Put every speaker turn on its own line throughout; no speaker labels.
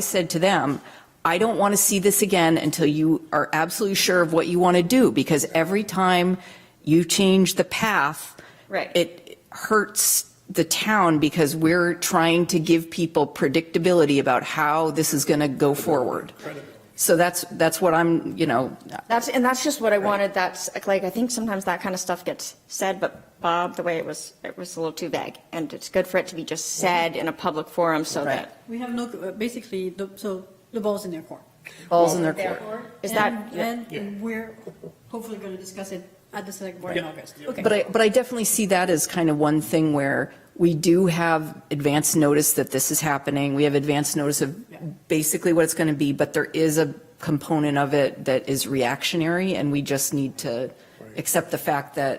I said to them, I don't want to see this again until you are absolutely sure of what you want to do, because every time you change the path.
Right.
It hurts the town because we're trying to give people predictability about how this is going to go forward. So that's, that's what I'm, you know,
That's, and that's just what I wanted, that's, like, I think sometimes that kind of stuff gets said, but Bob, the way it was, it was a little too vague, and it's good for it to be just
Mm-hmm.
said in a public forum so that,
We have no, uh, basically, the- so the ball's in their court.
balls in their court.
Is that-
And and we're hopefully going to discuss it at the select board in August. Okay.
But I, but I definitely see that as kind of one thing where we do have advance notice that this is happening. We have advance notice
Yeah.
of basically what it's going to be, but there is a component of it that is reactionary, and we just need to accept the fact that,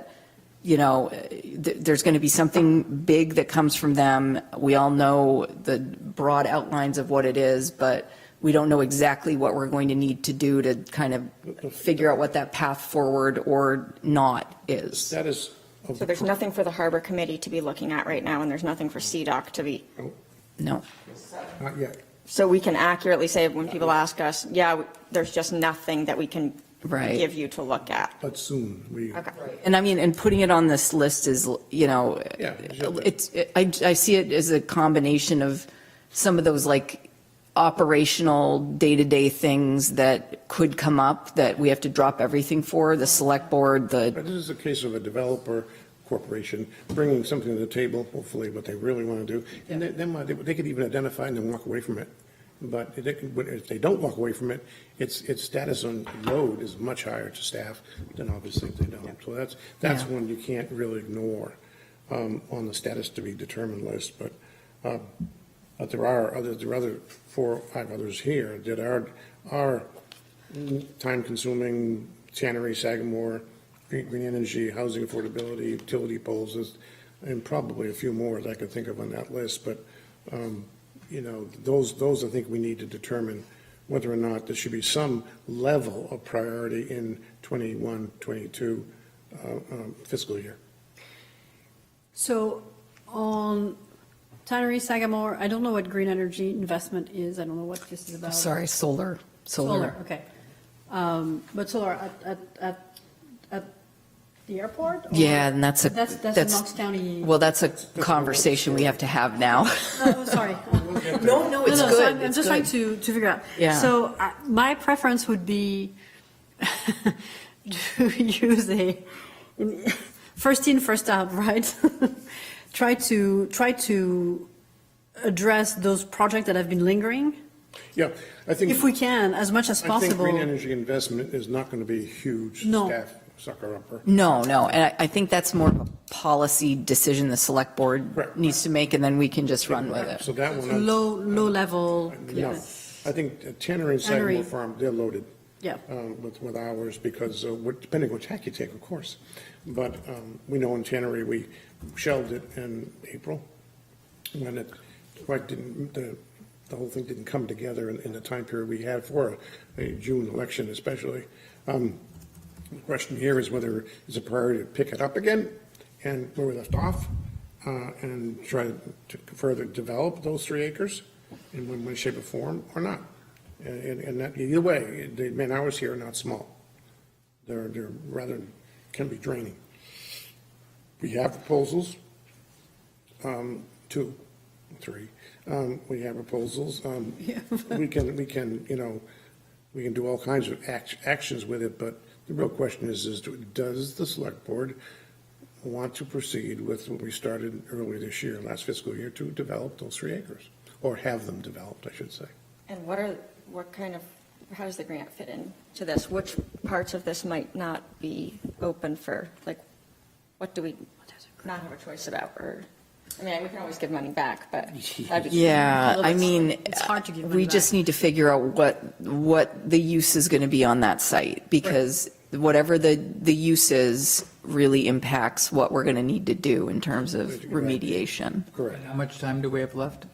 you know, th- there's going to be something big that comes from them. We all know the broad outlines of what it is, but we don't know exactly what we're going to need to do to kind of figure out what that path forward or not is.
status of
so
the
there's nothing for the harbor committee to be looking at right now, and there's nothing for CDOC to be,
No.
Not yet.
so we can accurately say when people ask us, yeah, we- there's just nothing that we can
Right.
give you to look at.
but soon. We,
Okay.
And I mean, and putting it on this list is, you know,
Yeah, exactly.
it's, it- I, I see it as a combination of some of those like operational day-to-day things that could come up that we have to drop everything for, the select board, the,
but this is a case of a developer corporation bringing something to the table, hopefully what they really want to do. And then- then what they they could even identify and then walk away from it. But they could- but if they don't walk away from it, its, its status on load is much higher to staff than obviously if they don't. So that's, that's
Yeah.
one you can't really ignore um, on the status to be determined list. But, uh, but there are other, there are other four, or five others here that are, are time-consuming, tannery, Sagamore, green green energy, housing affordability, utility poles, is- and probably a few more that I could think of on that list, but, um, you know, those, those I think we need to determine whether or not there should be some level of priority in 21, 22 uh, um, fiscal year.
So on Tannery Sagamore, I don't know what green energy investment is. I don't know what this is about.
sorry, solar, solar.
Okay. Um, But solar at, at, at, at the airport? or-
Yeah, and that's a,
That's, that's a Knox
that's,
County.
well, that's a conversation we have to have now.
Oh, sorry.
No, no,
No, no, so I'm- I'm just trying to, to figure out.
Yeah.
So I- my preference would be to use a, first in, first out, right? Try to, try to address those projects that have been lingering,
Yeah, I think.
if we can, as much as
I think green
possible.
energy investment is not going to be a huge
No.
staff sucker-upper.
No, no, and I, I think that's more of a policy decision the select board
Right.
needs to make, and then we can just run with it.
So that one. I'm-
Low, low level.
No, I think Tanner and Sagamore
Tannery.
Farm, they're loaded.
Yeah.
um, With, with hours, because uh, what- depending which hack you take, of course. But um, we know in Tannery, we shelved it in April, when it, quite didn't, the, the whole thing didn't come together in, in the time period we had for a June election especially. Um, The question here is whether it's a priority to pick it up again and where we left off, uh, and try to further develop those three acres in one way, shape, or form, or not. And, and- and that, either way, the man hours here are not small. They're, they're rather, can be draining. We have proposals, um, two, three, um, we have proposals, um, we can, we can, you know, we can do all kinds of act, actions with it, but the real question is, is do- does the select board want to proceed with what we started earlier this year, last fiscal year, to develop those three acres? Or have them developed, I should say.
And what are, what kind of, how does the grant fit in to this? Which parts of this might not be open for, like, what do we not have a choice about, or, I mean, we can always give money back, but that'd be.
Yeah,
Although
I
it's-
mean,
it's hard to give money
we just
back.
need to figure out what, what the use is going to be on that site, because whatever the, the use is really impacts what we're going to need to do in terms of remediation.
Correct,
And how much time do we have left?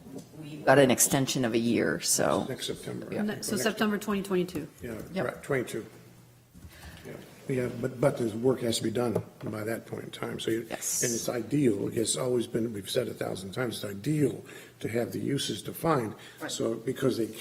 We've Got an extension of a year, so,
next September. I think, or
So
next-
September 2022.
Yeah,
Yep.
right, 22. Yeah, Yeah, but, but the work has to be done by that point in time, so you, and
Yes.
it's ideal, it's always been, we've said a thousand times, it's ideal to have the uses defined, so, because they